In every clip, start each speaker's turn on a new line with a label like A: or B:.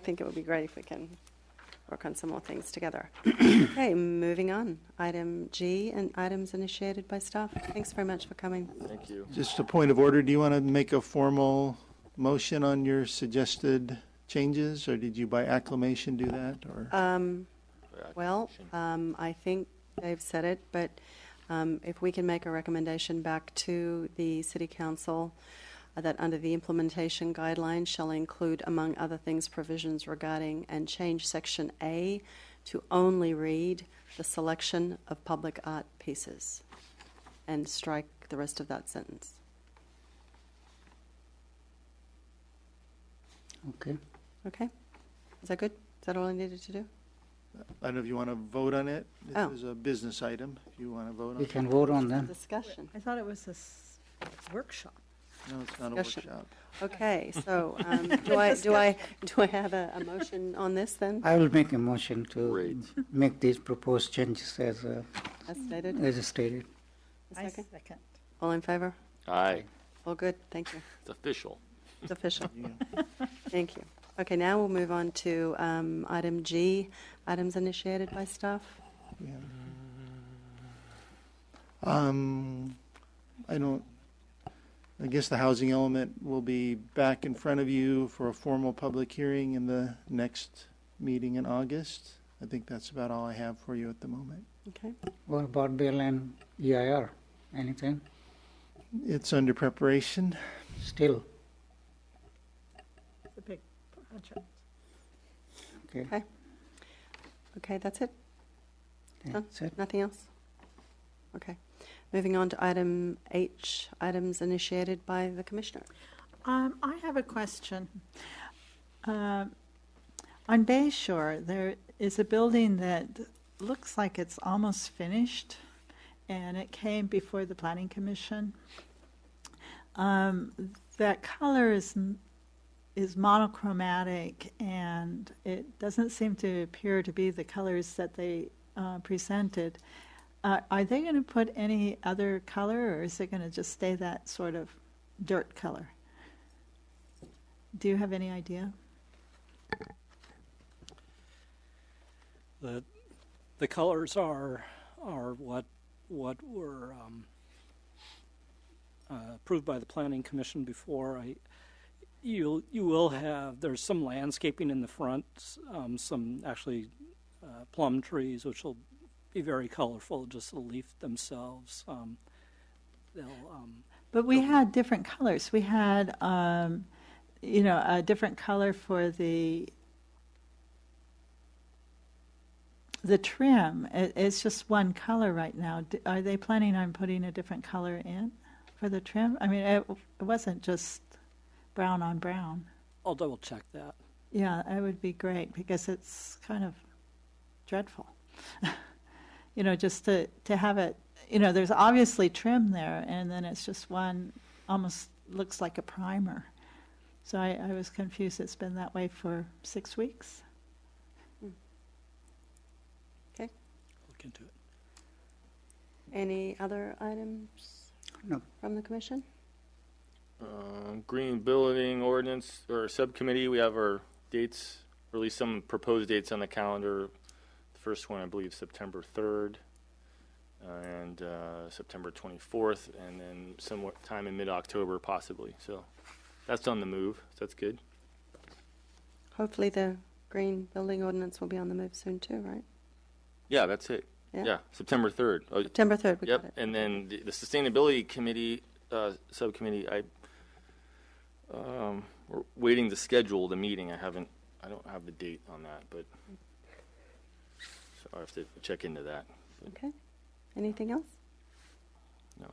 A: I think it would be great if we can work on some more things together. okay, moving on. Item G and items initiated by staff. Thanks very much for coming.
B: Thank you.
C: Just a point of order, do you want to make a formal motion on your suggested changes, or did you by acclamation do that, or?
A: Um, well, um, I think they've said it, but um, if we can make a recommendation back to the City Council uh, that under the implementation guidelines shall include, among other things, provisions regarding and change section A to only read the selection of public art pieces and strike the rest of that sentence.
D: Okay.
A: Okay? Is that good? Is that all I needed to do?
C: I don't know if you want to vote on it?
A: Oh.
C: This is a business item, if you want to vote on
D: We
C: it.
D: can vote on them.
A: Discussion.
E: I thought it was this workshop.
C: No, it's not a
A: Discussion.
C: workshop.
A: Okay, so um, do I, do I, do I have a, a motion on this then,
D: I will make a motion to
B: Great.
D: make these proposed changes as, uh,
A: as stated?
D: as stated.
A: A
E: I
A: second?
E: second.
A: All in favor?
B: Aye.
A: All good, thank you.
B: It's official.
A: It's official.
C: Yeah.
A: Thank you. Okay, now we'll move on to um, item G, items initiated by staff.
C: Yeah. Um, I don't, I guess the housing element will be back in front of you for a formal public hearing in the next meeting in August. I think that's about all I have for you at the moment.
A: Okay,
D: What about Bill and EIR? Anything?
C: It's under preparation.
D: Still,
E: It's a big project.
D: okay,
A: Okay. okay, that's it?
D: that's it.
A: Nothing else? Okay. Moving on to item H, items initiated by the commissioner.
E: Um, I have a question. Um, On Bay Shore, there is a building that looks like it's almost finished, and it came before the planning commission. Um, That color is, m- is monochromatic, and it doesn't seem to appear to be the colors that they uh, presented. Uh, Are they going to put any other color, or is it going to just stay that sort of dirt color? Do you have any idea?
F: The, the colors are, are what, what were um, uh, approved by the planning commission before. I, you, you will have, there's some landscaping in the front, s- um, some actually uh, plum trees, which will be very colorful, just the leaf themselves. Um, They'll, um,
E: But we had different colors. We had, um, you know, a different color for the the trim. It, it's just one color right now. D- Are they planning on putting a different color in for the trim? I mean, it, it wasn't just brown on brown.
F: I'll double check that.
E: Yeah, that would be great because it's kind of dreadful. you know, just to, to have it, you know, there's obviously trim there, and then it's just one almost looks like a primer. So I, I was confused. It's been that way for six weeks.
F: Look into it.
A: Any other items
D: No.
A: from the commission?
B: Um, Green Building Ordinance or Subcommittee, we have our dates, or at least some proposed dates on the calendar. The first one, I believe, September 3rd uh, and uh, September 24th, and then somewhat time in mid-October possibly. So that's on the move, so that's good.
A: Hopefully the green building ordinance will be on the move soon too, right?
B: Yeah, that's it.
A: Yeah.
B: Yeah, September 3rd. Oh,
A: September 3rd, we got
B: Yep,
A: it.
B: and then the the Sustainability Committee, uh, Subcommittee, I, um, we're waiting to schedule the meeting. I haven't, I don't have the date on that, but, so I have to check into that.
A: Okay. Anything else?
B: No.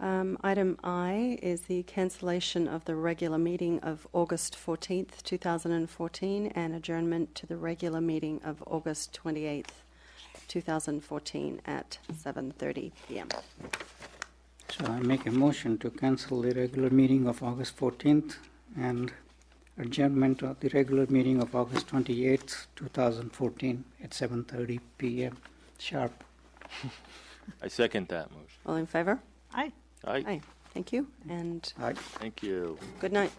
A: Um, Item I is the cancellation of the regular meeting of August 14th, 2014, and adjournment to the regular meeting of August 28th, 2014, at 7:30 PM.
D: So I make a motion to cancel the regular meeting of August 14th and adjournment of the regular meeting of August 28th, 2014 at 7:30 PM sharp.
B: I second that motion.
A: All in favor?
E: I
B: All right,
A: Aye. Thank you, and
D: Aye.
B: thank you.
A: good night.